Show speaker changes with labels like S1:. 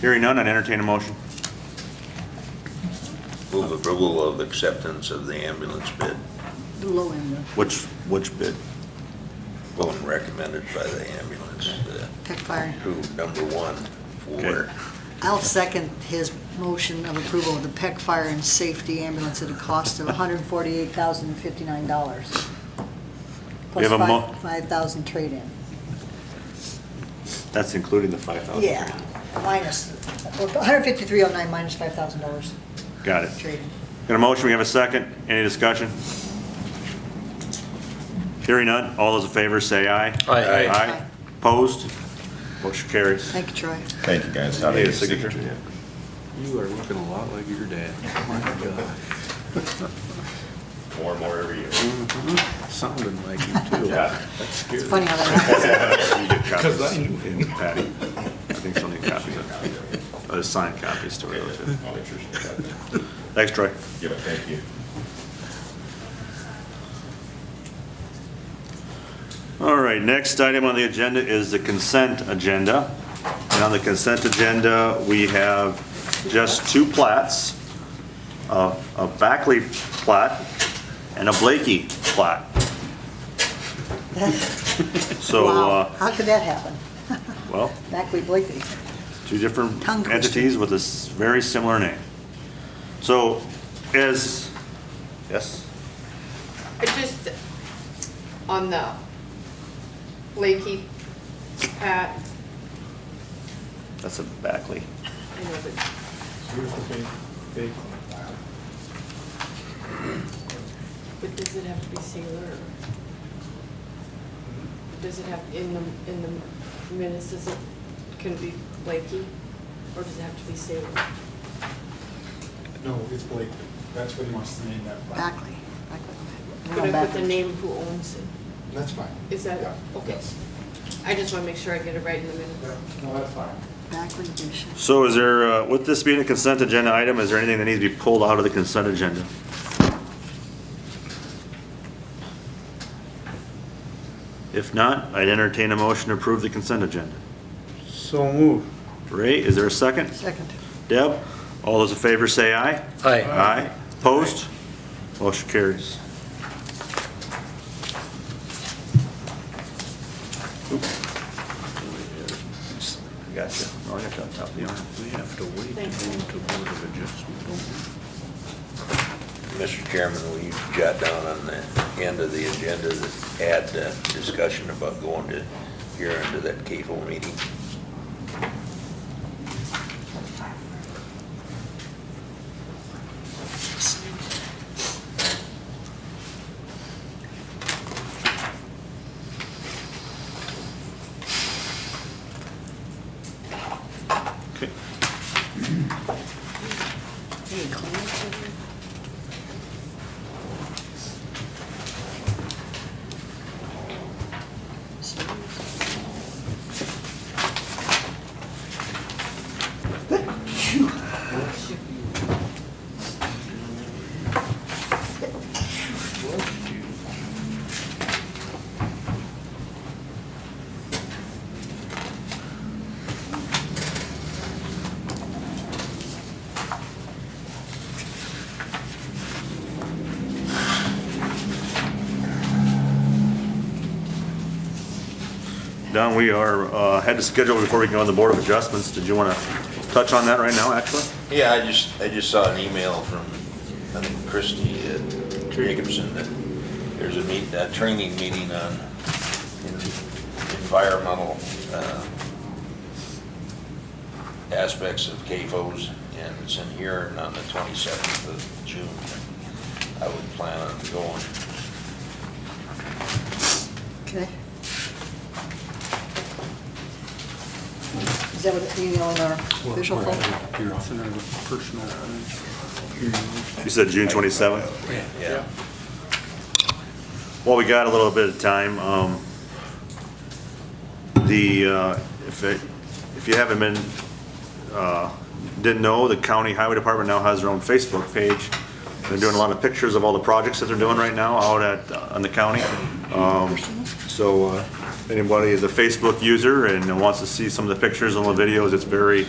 S1: Hearing none, I'd entertain a motion.
S2: Move approval of acceptance of the ambulance bid,
S3: The low end of
S1: Which, which bid?
S2: vote recommended by the ambulance, uh,
S3: Tech Fire.
S2: who, number one, for,
S1: Okay.
S3: I'll second his motion of approval of the Peck Fire and Safety Ambulance at a cost of $148,059.
S1: We have a mo-
S3: Plus five- 5,000 trade-in.
S1: That's including the five thousand.
S3: Yeah, minus, 153,09 minus $5,000
S1: Got it.
S3: trade-in.
S1: Got a motion, we have a second. Any discussion? Hearing none, all those in favor say aye.
S4: Aye.
S1: Aye. Opposed? Motion carries.
S3: Thank you, Troy.
S5: Thank you, guys. How do
S1: Need
S5: you
S1: a signature?
S4: You are looking a lot like your dad. My God,
S5: More and more every year.
S4: Mm-hmm. Sounding like you too.
S5: Yeah.
S4: That's scary.
S3: It's funny how that happens.
S1: You get copies,
S4: 'Cause I
S1: Patty. I think she'll need copies of, uh, signed copies to relative.
S5: I'll make sure she's got that.
S1: Thanks, Troy.
S5: Yeah, but thank you.
S1: All right, next item on the agenda is the consent agenda. And on the consent agenda, we have just two plats, a a Backley plat and a Blakey plat. So,
S3: Wow,
S1: uh,
S3: how could that happen?
S1: well,
S3: Backley Blakely.
S1: two different
S3: Tongue twister.
S1: entities with a s- very similar name. So as, yes,
S6: I just, on the Lakey Pat,
S1: that's a Backley.
S6: I know that,
S7: Here's the big, big one.
S6: but does it have to be singular? or Does it have, in the, in the minutes, does it, can it be Lakey? Or does it have to be singular?
S7: No, it's Blakely. That's what he wants to name that. plant.
S3: Backley. Backley.
S6: Could I put the
S3: Backley.
S6: name who owns it?
S7: That's fine.
S6: Is that,
S7: Yeah.
S6: okay.
S7: Yes.
S6: I just want to make sure I get it right in the
S7: Yeah,
S6: minutes.
S7: No, that's fine.
S3: Backley Bishop.
S1: So is there, uh, with this being a consent agenda item, is there anything that needs to be pulled out of the consent agenda? If not, I'd entertain a motion to approve the consent agenda.
S7: So move.
S1: Ray, is there a second?
S3: Second.
S1: Deb, all those in favor say aye.
S4: Hi.
S1: Aye. Opposed? Motion carries. Gotcha. Oh, I got you on top of the arm.
S4: We have to wait to go
S6: Thanks.
S4: to Board of Adjustment, don't we?
S2: Mr. Chairman, will you jot down on the end of the agenda that add uh, discussion about going to, here into that CAFO meeting?
S1: Okay.
S3: Hey, Clem.
S1: Don, we are, uh, had to schedule before we can go on the Board of Adjustments. Did you want to touch on that right now, actually?
S2: Yeah, I just, I just saw an email from, I think Christie uh, Jacobson, that there's a meet, a training meeting on en- environmental uh, aspects of CAFOs, and it's in here and on the 27th of June. I would plan on going.
S3: Okay. Is that what the email in our official folder?
S4: Your personal thing.
S1: You said June 27th?
S2: Yeah.
S1: Well, we got a little bit of time. um, The, uh, if it- if you haven't been, uh, didn't know, the county highway department now has their own Facebook page. They're doing a lot of pictures of all the projects that they're doing right now out at, on the county. Um, So uh, if anybody is a Facebook user and wants to see some of the pictures and the videos, it's very